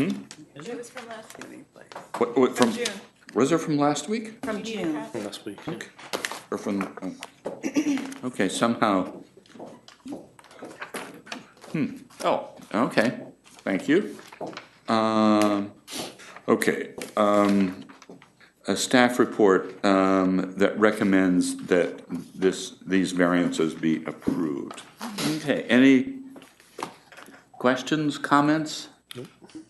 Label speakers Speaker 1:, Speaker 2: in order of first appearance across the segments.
Speaker 1: It was from last,
Speaker 2: What, what, from,
Speaker 1: June.
Speaker 2: was it from last week?
Speaker 1: from June.
Speaker 3: last week.
Speaker 2: Or from, oh. okay, somehow. Hmm, oh, okay, thank you. Um, okay, um, a staff report, um, that recommends that this, these variances be approved. Okay, any questions, comments?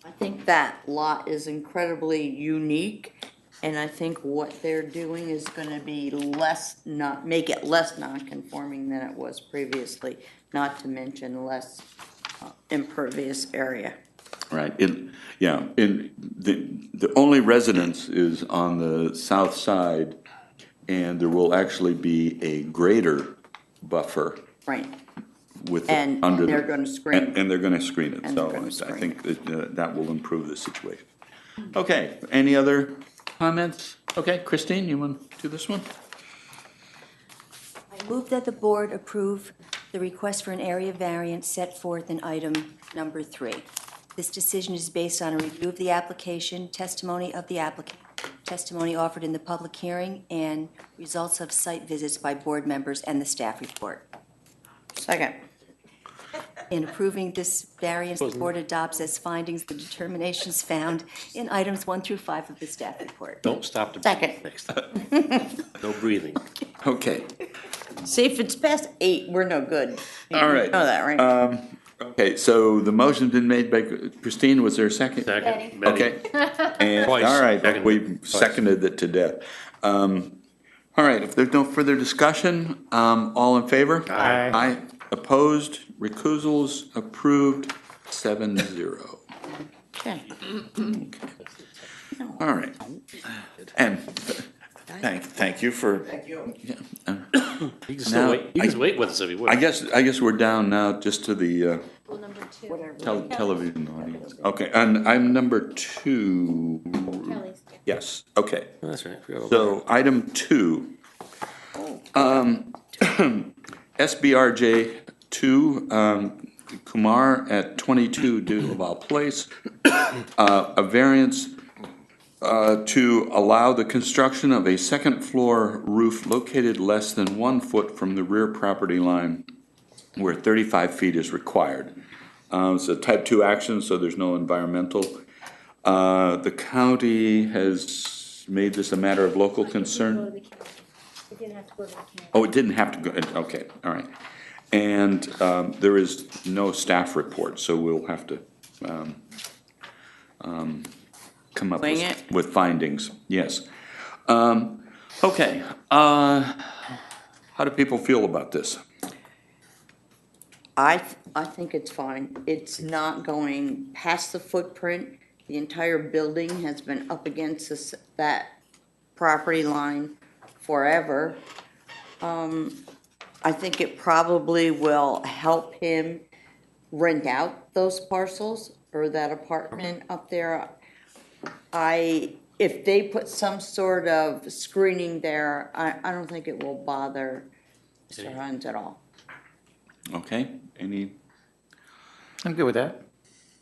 Speaker 4: I think that lot is incredibly unique, and I think what they're doing is gonna be less, not, make it less non-conforming than it was previously, not to mention less uh, impervious area.
Speaker 2: Right, in, yeah, in, the, the only residence is on the south side, and there will actually be a greater buffer
Speaker 4: Right,
Speaker 2: with, the-
Speaker 4: And
Speaker 2: under. the-
Speaker 4: they're gonna screen
Speaker 2: And, and they're gonna screen it,
Speaker 4: And
Speaker 2: so
Speaker 4: they're gonna
Speaker 2: I- I
Speaker 4: screen
Speaker 2: think that, uh, that will improve the situation. Okay, any other comments? Okay, Christine, you want to do this one?
Speaker 5: I move that the board approve the request for an area variance set forth in item number three. This decision is based on a review of the application, testimony of the applicant, testimony offered in the public hearing, and results of site visits by board members and the staff report.
Speaker 4: second.
Speaker 5: In approving this variance, the board adopts as findings the determinations found in items one through five of the staff report.
Speaker 3: Don't stop to
Speaker 4: Second.
Speaker 3: breathe next time. No breathing.
Speaker 2: Okay,
Speaker 4: See, if it's past eight, we're no good.
Speaker 2: all right. Uh,
Speaker 4: You know
Speaker 2: Um,
Speaker 4: Oh, that, right?
Speaker 2: Okay, so the motion's been made by Christine, was there a second?
Speaker 3: Second. Betty.
Speaker 2: Okay. And,
Speaker 3: Twice.
Speaker 2: all right,
Speaker 3: Seconded.
Speaker 2: we
Speaker 3: Twice.
Speaker 2: seconded it to death. Um, all right, if there's no further discussion, um, all in favor?
Speaker 3: Aye.
Speaker 2: Aye, opposed, recusals, approved, seven zero.
Speaker 4: Okay.
Speaker 2: All right. And thank, thank you for. Thank you.
Speaker 3: You can still
Speaker 2: Now,
Speaker 3: wait, you can
Speaker 2: I-
Speaker 3: just wait with us if you would.
Speaker 2: I guess, I guess we're down now just to the, uh,
Speaker 1: Number two.
Speaker 2: tel- television audience. Okay, and I'm number two. Yes, okay.
Speaker 3: Oh, That's right. I forgot about
Speaker 2: So item two, um, SBRJ two, um, Kumar at twenty-two Duval Place, uh, a variance uh, to allow the construction of a second floor roof located less than one foot from the rear property line where thirty-five feet is required. Um, It's a type two action, so there's no environmental. Uh, The county has made this a matter of local concern.
Speaker 6: It didn't have to go to the county.
Speaker 2: Oh, it didn't have to go, okay, all right. And um, there is no staff report, so we'll have to um, um, come up
Speaker 4: Wing
Speaker 2: with
Speaker 4: it?
Speaker 2: with findings, yes. Um, Okay, uh, how do people feel about this?
Speaker 4: I, th- I think it's fine. It's not going past the footprint. The entire building has been up against this, that property line forever. Um, I think it probably will help him rent out those parcels or that apartment up there. I, if they put some sort of screening there, I, I don't think it will bother Mr. Hunt at all.
Speaker 2: Okay, any,
Speaker 7: I'm good with that.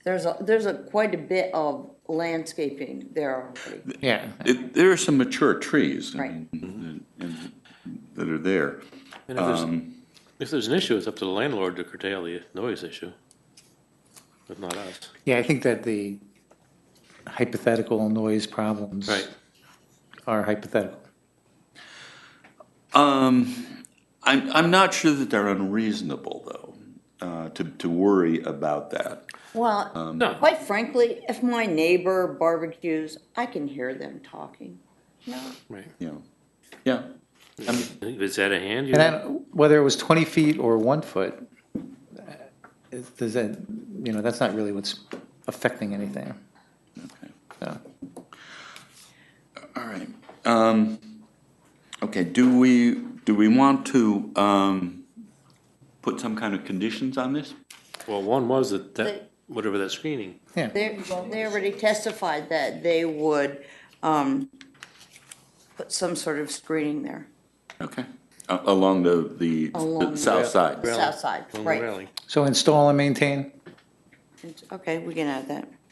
Speaker 4: There's a, there's a, quite a bit of landscaping there already.
Speaker 7: Yeah.
Speaker 2: it- there are some mature trees. I
Speaker 4: Right.
Speaker 2: mean, and- and That are there.
Speaker 3: And if, there's, if there's an issue, it's up to the landlord to curtail the noise issue. If not us.
Speaker 7: Yeah, I think that the hypothetical noise problems
Speaker 3: Right.
Speaker 7: are hypothetical.
Speaker 2: Um, I'm, I'm not sure that they're unreasonable, though, uh, to, to worry about that. Um,
Speaker 4: Well,
Speaker 3: No.
Speaker 4: quite frankly, if my neighbor barbecues, I can hear them talking.
Speaker 3: Right.
Speaker 2: you know, yeah.
Speaker 3: If it's out of hand, you
Speaker 7: And then whether it was 20 feet or one foot, uh, it- does that, you know, that's not really what's affecting anything. So,
Speaker 2: All right. Um, okay, do we, do we want to, um, put some kind of conditions on this?
Speaker 3: well, one was that, that
Speaker 4: They-
Speaker 3: whatever that screening.
Speaker 7: yeah,
Speaker 4: They, they already testified that they would, um, put some sort of screening there,
Speaker 2: Okay. A- Along the, the
Speaker 4: Along
Speaker 2: the
Speaker 4: the-
Speaker 2: south side?
Speaker 4: south side,
Speaker 3: Along the
Speaker 4: right.
Speaker 3: railing.
Speaker 7: so install and maintain,
Speaker 4: It's- Okay, we can add that.